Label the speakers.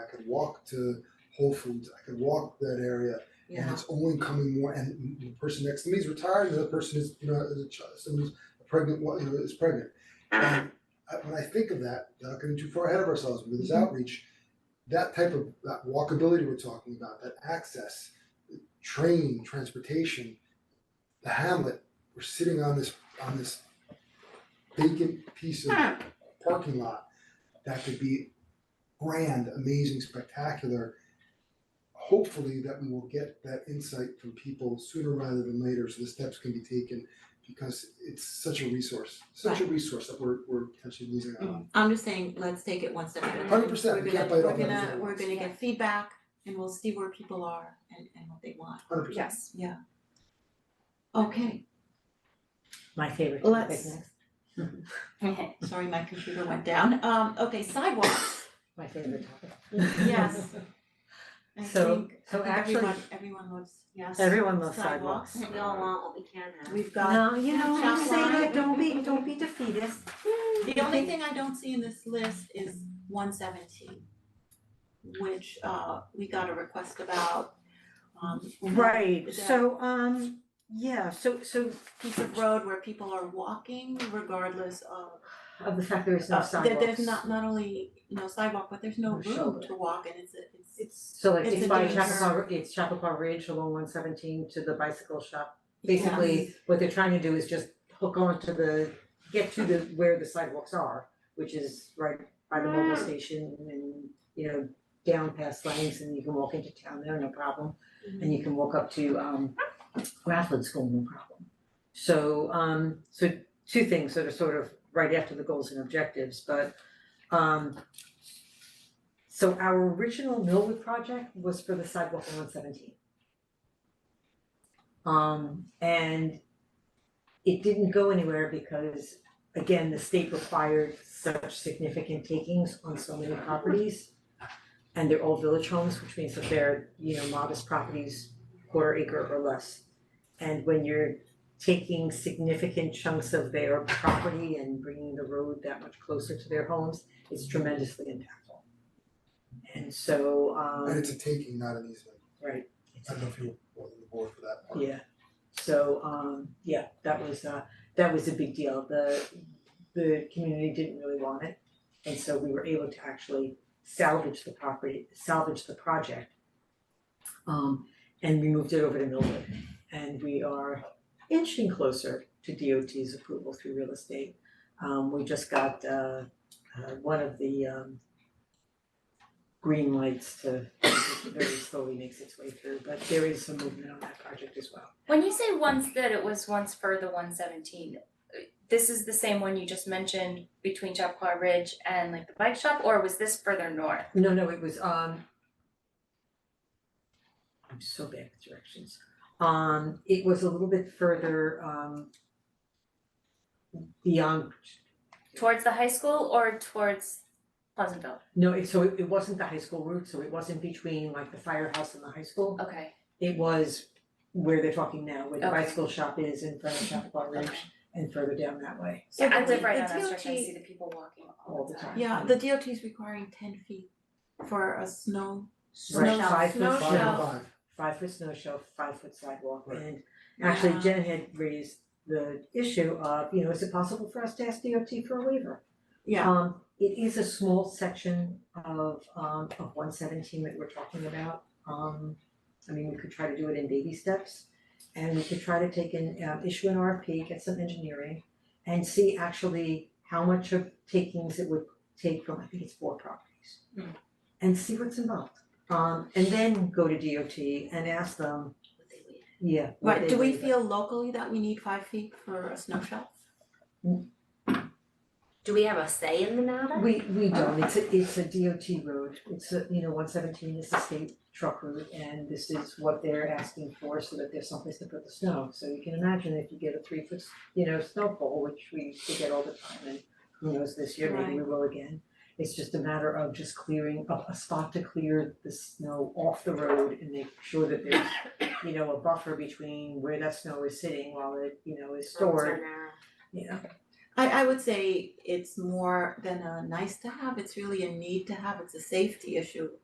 Speaker 1: could walk to Whole Foods, I could walk that area. And
Speaker 2: yeah,
Speaker 1: it's only coming more, and the person next to me is retired, and the other person is, you know, is a child, someone's pregnant, wo- you know, is pregnant. And I, when I think of that, not getting too far ahead of ourselves with this outreach, that type of, that walkability we're talking about, that access, train, transportation, the hamlet, we're sitting on this, on this vacant piece of parking lot that could be grand, amazing, spectacular. Hopefully that we will get that insight from people sooner rather than later, so the steps can be taken because it's such a resource, such a resource that we're we're potentially losing out on.
Speaker 2: I'm just saying, let's take it one step at a time.
Speaker 1: 100%,
Speaker 2: We're
Speaker 1: we
Speaker 2: gonna,
Speaker 1: can't bite
Speaker 2: we're
Speaker 1: off everything
Speaker 2: gonna,
Speaker 1: at
Speaker 2: we're
Speaker 1: once.
Speaker 2: gonna get feedback and we'll see where people are and and what they want,
Speaker 1: Hundred percent.
Speaker 3: Yes.
Speaker 2: yeah. Okay,
Speaker 4: My favorite topic
Speaker 2: Let's-
Speaker 4: next,
Speaker 2: sorry, my computer went down, um, okay, sidewalks,
Speaker 4: my favorite topic.
Speaker 2: yes. I
Speaker 4: So-
Speaker 2: think, I
Speaker 4: so
Speaker 2: think
Speaker 4: actually-
Speaker 2: everyone, everyone loves, yes.
Speaker 4: Everyone loves
Speaker 2: Sidewalks.
Speaker 4: sidewalks.
Speaker 5: We all want what we can have.
Speaker 2: We've got,
Speaker 4: No, you know,
Speaker 2: Chop
Speaker 4: don't say
Speaker 2: line.
Speaker 4: that, don't be, don't be defeatist.
Speaker 2: the only thing I don't see in this list is one seventeen, which uh we got a request about, um.
Speaker 4: Right,
Speaker 2: Yeah.
Speaker 4: so, um, yeah, so, so
Speaker 2: piece of road where people are walking regardless of
Speaker 4: of the fact Oh, there is no
Speaker 2: uh, there-
Speaker 4: sidewalks.
Speaker 2: there's not not only no sidewalk, but there's no
Speaker 4: No
Speaker 2: room
Speaker 4: shoulder.
Speaker 2: to walk and it's a, it's
Speaker 4: So like
Speaker 2: it's
Speaker 4: it's
Speaker 2: a
Speaker 4: by
Speaker 2: danger.
Speaker 4: Chappaqua, it's Chappaqua Ridge along one seventeen to the bicycle shop.
Speaker 2: Yeah.
Speaker 4: Basically, what they're trying to do is just hook onto the, get to the, where the sidewalks are, which is right by the mobile station and, you know, down past Langs and you can walk into town there, no problem. And you can walk up to um Grafflin School, no problem. So um, so two things that are sort of right after the goals and objectives, but um so our original Millwood project was for the sidewalk on one seventeen. Um and it didn't go anywhere because again, the state required such significant takings on so many properties. And they're all village homes, which means that they're, you know, modest properties, quarter acre or less. And when you're taking significant chunks of their property and bringing the road that much closer to their homes, it's tremendously impactful. And so, um.
Speaker 1: And it's a taking, not an easement.
Speaker 4: Right.
Speaker 1: I don't know if you were on the board for that part.
Speaker 4: Yeah, so um yeah, that was uh that was a big deal. The the community didn't really want it. And so we were able to actually salvage the property, salvage the project. Um and we moved it over to Millwood and we are inching closer to DOT's approval through real estate. Um we just got uh uh one of the um green lights to very slowly makes its way through, but there is some movement on that project as well.
Speaker 5: When you say once that it was once for the one seventeen, this is the same one you just mentioned between Chappaqua Ridge and like the bike shop, or was this further north?
Speaker 4: No, no, it was um. I'm so bad with directions. Um, it was a little bit further um. Beyond,
Speaker 5: Towards the high school or towards Pleasantville?
Speaker 4: no, it so it it wasn't the high school route, so it wasn't between like the firehouse and the high school.
Speaker 5: Okay,
Speaker 4: It was where they're talking now, where the
Speaker 5: Oh. Okay.
Speaker 4: bicycle shop is in front of Chappaqua Ridge and further down that way.
Speaker 2: So
Speaker 5: I
Speaker 2: the
Speaker 5: live
Speaker 2: D-
Speaker 5: right
Speaker 2: the
Speaker 5: on that stretch, I
Speaker 2: DOT
Speaker 5: see the people walking
Speaker 4: All
Speaker 5: all
Speaker 4: the
Speaker 5: the time.
Speaker 4: time.
Speaker 2: Yeah, the DOT is requiring ten feet for a snow snow
Speaker 4: Right, five
Speaker 2: snow
Speaker 4: foot
Speaker 1: Five and
Speaker 4: snow.
Speaker 2: shelf.
Speaker 1: five,
Speaker 4: Five foot snow shelf, five foot sidewalk,
Speaker 1: Right.
Speaker 4: and Actually,
Speaker 2: Yeah.
Speaker 4: Jen had raised the issue of, you know, is it possible for us to ask DOT for a waiver?
Speaker 2: Yeah.
Speaker 4: Um, it is a small section of um of one seventeen that we're talking about. Um, I mean, we could try to do it in baby steps. And we could try to take an, um, issue an RFP, get some engineering and see actually how much of takings it would take from, I think it's four properties.
Speaker 2: Hmm.
Speaker 5: Mm.
Speaker 4: And see what's involved. Um, and then go to DOT and ask them, yeah. would
Speaker 2: Right,
Speaker 4: they
Speaker 2: do we
Speaker 4: waive it?
Speaker 2: feel locally that we need five feet for a snow shelf?
Speaker 5: Do we have a say in the matter?
Speaker 4: We we don't, it's a it's a DOT road, it's a, you know, one seventeen is the state truck route and this is what they're asking for so that there's someplace to put the snow. So you can imagine if you get a three foot, you know, snowfall, which we used to get all the time and who knows this year, maybe we will again. It's just a matter of just clearing a a spot to clear the snow off the road and make sure that there's, you know, a buffer between where that snow is sitting while it, you know, is stored, you know.
Speaker 2: I I would say it's more than a nice to have, it's really a need to have, it's a safety issue